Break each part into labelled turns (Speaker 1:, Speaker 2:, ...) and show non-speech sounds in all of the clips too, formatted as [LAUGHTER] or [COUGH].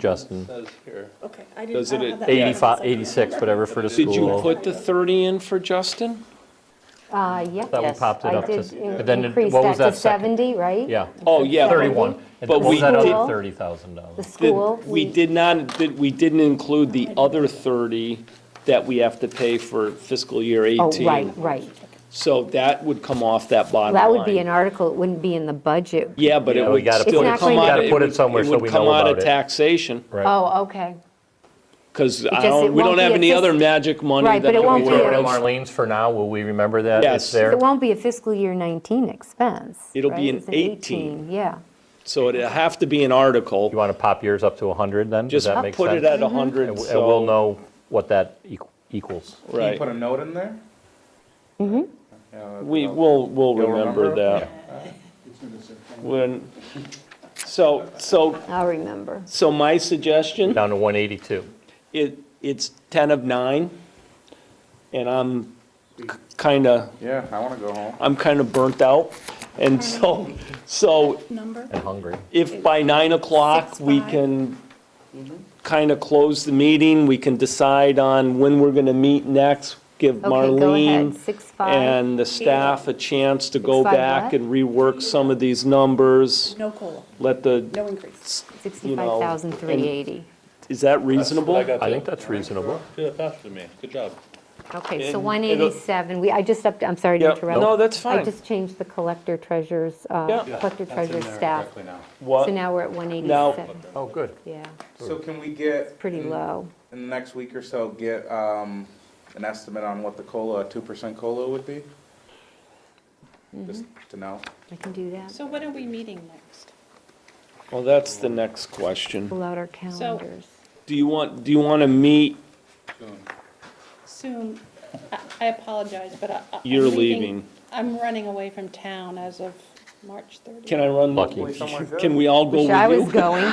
Speaker 1: Justin,
Speaker 2: Says here.
Speaker 3: Okay, I didn't,
Speaker 2: Does
Speaker 3: I don't
Speaker 2: it-
Speaker 3: have that.
Speaker 1: 85, 86, whatever for the school.
Speaker 2: Did you put the 30 in for Justin?
Speaker 4: Uh, yeah.
Speaker 1: Thought we
Speaker 5: Yes,
Speaker 1: popped it
Speaker 5: I
Speaker 1: up to-
Speaker 5: did in-
Speaker 1: but then it-
Speaker 5: increase
Speaker 1: what was
Speaker 5: that
Speaker 1: that
Speaker 5: to
Speaker 1: second?
Speaker 5: 70, right?
Speaker 1: Yeah,
Speaker 2: Oh, yeah. but
Speaker 1: 31. And
Speaker 2: But
Speaker 1: what was
Speaker 2: we
Speaker 1: that other
Speaker 2: did-
Speaker 5: The
Speaker 1: $30,000?
Speaker 2: did-
Speaker 5: school.
Speaker 2: We did not, did- we didn't include the other 30 that we have to pay for fiscal year
Speaker 5: Oh,
Speaker 2: 18.
Speaker 5: right, right.
Speaker 2: So that would come off that bottom line.
Speaker 5: That would be an article, it wouldn't be in the budget.
Speaker 2: Yeah, but
Speaker 1: Yeah,
Speaker 2: it
Speaker 1: we
Speaker 2: would
Speaker 1: gotta
Speaker 5: put
Speaker 2: still
Speaker 5: it- It's not
Speaker 2: come
Speaker 5: going
Speaker 2: out.
Speaker 5: to-
Speaker 1: Gotta put it somewhere so we know
Speaker 2: would come out
Speaker 1: about
Speaker 2: of
Speaker 1: it.
Speaker 2: taxation.
Speaker 1: Right.
Speaker 5: Oh, okay.
Speaker 2: Because I
Speaker 5: Because
Speaker 2: don't,
Speaker 5: it
Speaker 2: we don't
Speaker 5: won't be
Speaker 2: have
Speaker 5: a
Speaker 2: any
Speaker 5: fis-
Speaker 2: other magic money that.
Speaker 5: Right, but it won't
Speaker 1: We
Speaker 5: be
Speaker 1: throw it
Speaker 5: a-
Speaker 1: in Marlene's for now, will we remember that? It's
Speaker 2: Yes.
Speaker 1: there?
Speaker 5: It won't be a fiscal year 19 expense.
Speaker 2: It'll be
Speaker 5: right?
Speaker 2: an
Speaker 5: It's
Speaker 2: 18.
Speaker 5: Yeah.
Speaker 2: So it'd have to be an
Speaker 1: You
Speaker 2: article.
Speaker 1: want to pop yours up to 100 then? Does
Speaker 2: Just
Speaker 1: that make sense?
Speaker 2: put it at
Speaker 1: And
Speaker 2: 100,
Speaker 1: w- and we'll
Speaker 2: so,
Speaker 1: know what that equ- equals.
Speaker 6: Can you
Speaker 2: right.
Speaker 6: put a note in there? Mm-hmm.
Speaker 2: We, we'll, we'll
Speaker 6: You'll
Speaker 2: remember
Speaker 6: remember?
Speaker 2: that. When, so, so,
Speaker 5: I'll remember.
Speaker 2: so my suggestion,
Speaker 1: Down to 182.
Speaker 2: it, it's 10 of 9, and I'm kind of,
Speaker 6: Yeah, I want to go home.
Speaker 2: I'm kind of burnt out. And so, so
Speaker 3: Number,
Speaker 1: I'm hungry.
Speaker 2: if by 9 o'clock,
Speaker 3: Six,
Speaker 2: we
Speaker 3: five.
Speaker 2: can
Speaker 5: Mm-hmm.
Speaker 2: kind of close the meeting, we can decide on when we're going to meet next, give
Speaker 5: Okay, go
Speaker 2: Marlene.
Speaker 5: ahead, 6-5.
Speaker 2: and the staff a chance to go
Speaker 5: Six five
Speaker 2: back
Speaker 5: what?
Speaker 2: and rework some of these numbers,
Speaker 3: no COLA,
Speaker 2: let the,
Speaker 3: no increase.
Speaker 2: you know, and-
Speaker 5: 65,380.
Speaker 2: Is that reasonable?
Speaker 1: I think that's reasonable.
Speaker 7: Yeah, faster than me. Good job.
Speaker 5: Okay, so
Speaker 2: and it'll-
Speaker 5: 187, we, I just upped, I'm sorry to
Speaker 2: Yep.
Speaker 5: interrupt.
Speaker 2: No, that's fine.
Speaker 5: I just changed the collector treasurer's,
Speaker 2: Yeah.
Speaker 5: uh, collector treasurer's staff. So
Speaker 2: What,
Speaker 5: now we're at 187.
Speaker 1: Oh, good.
Speaker 5: Yeah,
Speaker 6: So can we get,
Speaker 5: pretty low.
Speaker 6: in the next week or so, get um, an estimate on what the COLA, a 2% COLA would be?
Speaker 8: Mm-hmm.
Speaker 6: Just to know.
Speaker 5: I can do that.
Speaker 8: So when are we meeting next?
Speaker 2: well, that's the next question.
Speaker 5: Pull out our calendars.
Speaker 2: Do you want, do you want to meet,
Speaker 8: Soon, I- I apologize, but I. I- I'm
Speaker 2: You're leaving.
Speaker 8: I'm running away from town as of March 30th.
Speaker 2: can I run?
Speaker 1: Lucky.
Speaker 2: Can we all go
Speaker 5: Wish I was
Speaker 2: with [LAUGHS] you?
Speaker 5: going.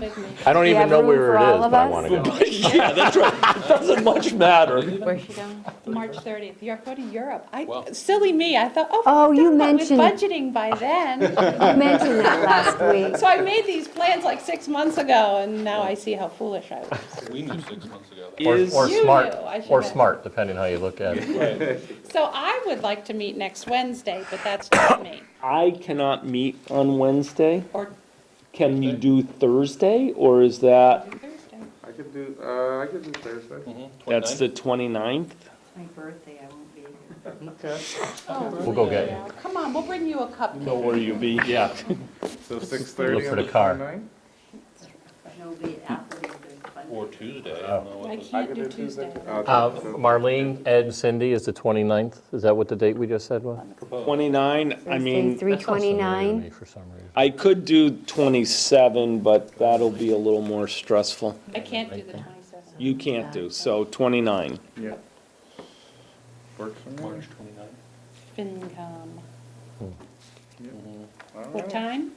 Speaker 8: Big meeting.
Speaker 1: I don't
Speaker 5: you
Speaker 1: even
Speaker 5: have
Speaker 1: know
Speaker 5: room
Speaker 1: where
Speaker 5: for
Speaker 1: it
Speaker 5: all
Speaker 1: is,
Speaker 5: of
Speaker 1: but I
Speaker 5: us?
Speaker 1: want to go.
Speaker 2: Yeah, that's right. It doesn't much matter.
Speaker 5: Where's she going?
Speaker 8: March 30th, you're going to Europe. I, silly me, I thought, oh.
Speaker 5: Oh, you
Speaker 8: done with
Speaker 5: mentioned-
Speaker 8: Budgeting by then.
Speaker 5: You mentioned
Speaker 2: [LAUGHS]
Speaker 5: that last week.
Speaker 8: So I made these plans like six months ago, and now I see how foolish I was.
Speaker 7: We knew six months ago. that.
Speaker 1: Or-
Speaker 2: Is,
Speaker 1: Or
Speaker 8: You
Speaker 1: smart,
Speaker 8: do, I should
Speaker 1: or
Speaker 8: have.
Speaker 1: smart, depending how you look at it.
Speaker 8: So I would like to meet next Wednesday, but that's not me.
Speaker 2: I cannot meet on Wednesday.
Speaker 8: Or
Speaker 2: Can you do Thursday, or is that,
Speaker 8: Thursday.
Speaker 6: I could do, uh, I could do Thursday.
Speaker 2: that's the 29th?
Speaker 9: My birthday, I won't be here.
Speaker 6: Okay.
Speaker 8: Oh.
Speaker 1: We'll go get you.
Speaker 8: Come on, we'll bring you a cupcake.
Speaker 2: Or you be?
Speaker 1: Yeah.
Speaker 6: So 6:30
Speaker 1: for
Speaker 6: on
Speaker 1: the
Speaker 6: the
Speaker 1: car.
Speaker 6: 29th?
Speaker 9: No, it'll be after the Monday.
Speaker 7: Or Tuesday, I don't know what
Speaker 8: I
Speaker 7: the-
Speaker 8: can't do Tuesday.
Speaker 1: Uh, Marlene, Ed, and Cindy is the 29th. Is that what the date we just said was?
Speaker 2: 29, I mean.
Speaker 5: Thursday, 329.
Speaker 1: For some reason.
Speaker 2: I could do 27, but that'll be a little more stressful.
Speaker 8: I can't do the 27th.
Speaker 2: You can't do, so 29.
Speaker 6: Yeah. Works for me.
Speaker 7: March 29th.
Speaker 8: FinCom.
Speaker 6: All
Speaker 8: um, What
Speaker 6: right.
Speaker 8: time?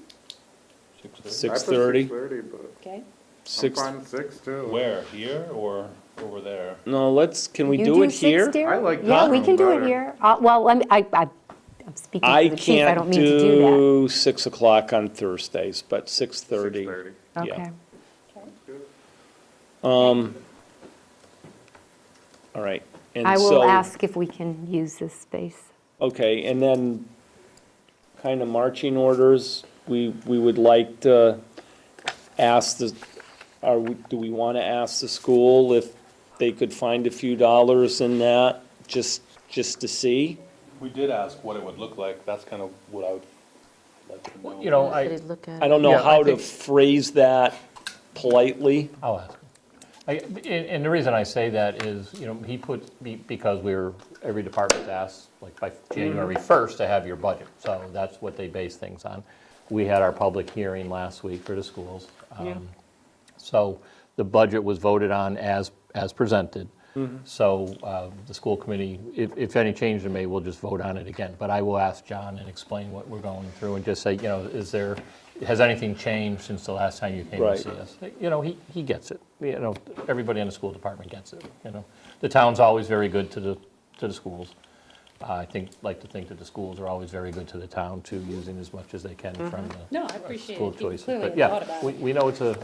Speaker 7: 6:30.
Speaker 6: I put
Speaker 2: 6:30,
Speaker 6: 6:30, but
Speaker 8: Okay.
Speaker 6: I'm
Speaker 2: 6,
Speaker 6: fine with 6 too.
Speaker 7: Where, here or over there?
Speaker 2: no, let's, can we
Speaker 5: You
Speaker 2: do it
Speaker 5: six,
Speaker 2: here?
Speaker 5: dear?
Speaker 6: I like
Speaker 5: Yeah,
Speaker 6: that
Speaker 5: we
Speaker 6: room
Speaker 5: can do it
Speaker 6: better.
Speaker 5: here. Uh, Well, let me, I, I- I'm speaking
Speaker 2: I
Speaker 5: for the chief, I don't
Speaker 2: can't
Speaker 5: mean to do
Speaker 2: do 6 o'clock on Thursdays, but 6:30.
Speaker 6: 6:30.
Speaker 5: that.
Speaker 2: yeah.
Speaker 5: Okay.
Speaker 2: Um, All right. and
Speaker 5: I will
Speaker 2: so-
Speaker 5: ask if we can use this space.
Speaker 2: Okay, and then kind of marching orders, we, we would like to ask the, are, we- do we want to ask the school if they could find a few dollars in that, just, just to see?
Speaker 7: We did ask what it would look like. That's kind of what I would like to know.
Speaker 1: You know, I,
Speaker 5: look at
Speaker 2: I don't know
Speaker 1: Yeah, I
Speaker 2: how to
Speaker 1: think-
Speaker 2: phrase that politely.
Speaker 1: I'll ask. him. I, and, and the reason I say that is, you know, he put, be- because we were, every department's asked, like by January first to have your budget, so that's what they base things on. We had our public hearing last week for the schools. um, So the budget was voted on as, as presented. So uh, the school committee, if, if any change are made, we'll just vote on it again. But I will ask John and explain what we're going through and just say, you know, is there, has anything changed since the last time you came to
Speaker 2: Right.
Speaker 1: see us? You know, he, he gets it. You know, everybody in the school department gets it, you know. The town's always very good to the, to the schools. I think, like to think that the schools are always very good to the town too, using as much as they can from the
Speaker 8: No, I appreciate
Speaker 1: school
Speaker 8: it. You
Speaker 1: choices.
Speaker 8: clearly
Speaker 1: But
Speaker 8: have thought
Speaker 1: yeah,
Speaker 8: about it.
Speaker 1: we, we know it's a,